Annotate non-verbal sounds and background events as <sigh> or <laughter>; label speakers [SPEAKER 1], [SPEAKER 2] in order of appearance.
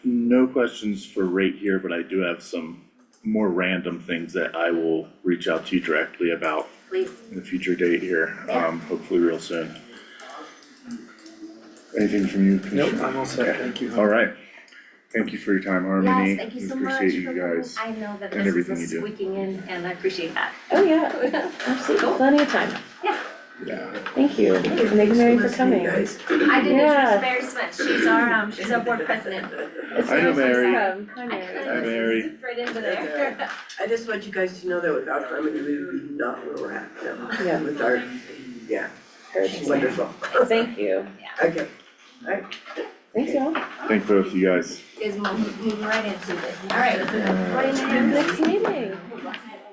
[SPEAKER 1] no questions for rate here, but I do have some more random things that I will reach out to you directly about
[SPEAKER 2] please.
[SPEAKER 1] in a future date here,
[SPEAKER 2] Yeah.
[SPEAKER 1] um, hopefully real soon. Anything from you,
[SPEAKER 3] Nope,
[SPEAKER 1] Commissioner?
[SPEAKER 3] I'm all set, thank you.
[SPEAKER 1] All right. Thank you for your time, Harmony.
[SPEAKER 2] Yes, thank you
[SPEAKER 1] We
[SPEAKER 2] so much for
[SPEAKER 1] Appreciate you
[SPEAKER 2] coming.
[SPEAKER 1] guys.
[SPEAKER 2] I know that
[SPEAKER 1] and
[SPEAKER 2] this is
[SPEAKER 1] everything
[SPEAKER 2] a
[SPEAKER 1] you do.
[SPEAKER 2] squeaking in and I appreciate that.
[SPEAKER 4] Oh, <laughs> yeah, absolutely, plenty of time.
[SPEAKER 2] Yeah.
[SPEAKER 1] Yeah.
[SPEAKER 4] Thank you, thank you Mary for coming.
[SPEAKER 2] I did
[SPEAKER 4] Yeah.
[SPEAKER 2] introduce Mary Smith, she's our, um, she's our board president.
[SPEAKER 1] Hi,
[SPEAKER 2] Mary.
[SPEAKER 1] Mary.
[SPEAKER 4] Welcome. Hi,
[SPEAKER 2] I
[SPEAKER 4] Mary.
[SPEAKER 1] Hi,
[SPEAKER 2] kinda
[SPEAKER 1] Mary.
[SPEAKER 2] zipped Right into there.
[SPEAKER 5] I just want you guys to know that without Harmony, we would be not where we're at now.
[SPEAKER 4] Yeah.
[SPEAKER 5] With our, yeah,
[SPEAKER 4] Heard.
[SPEAKER 5] wonderful.
[SPEAKER 4] Thank you,
[SPEAKER 5] Okay,
[SPEAKER 4] thanks y'all.
[SPEAKER 1] Thank both you guys.
[SPEAKER 2] Is moving right into it. All right, what do you do?
[SPEAKER 4] Next meeting.
[SPEAKER 2] Next